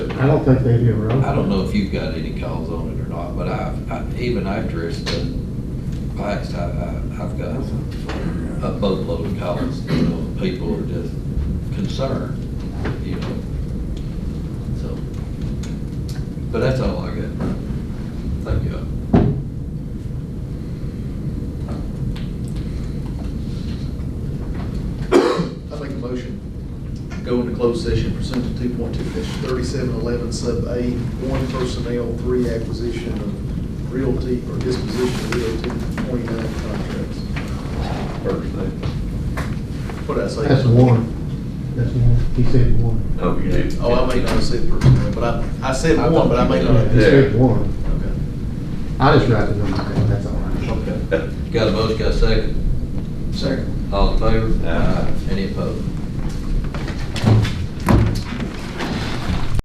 I don't think they do, really. I don't know if you've got any calls on it or not, but I've, I- even after it's been passed, I, I- I've got a boatload of calls, you know, people are just concerned, you know, so. But that's all I got. Thank you. I make a motion, go into closed session pursuant to two point two thirty-seven eleven sub A, one personnel, three acquisition of realty or disposition of realty, twenty-nine contracts. First thing. What did I say? That's one. That's one. He said one. Oh, you did. Oh, I may not have said personnel, but I, I said I one, but I may not He have. Yeah. said one. Okay. I just write the number down, that's all right. Okay. Got a motion, got a second? Second. All in favor? Aye. Any opposed?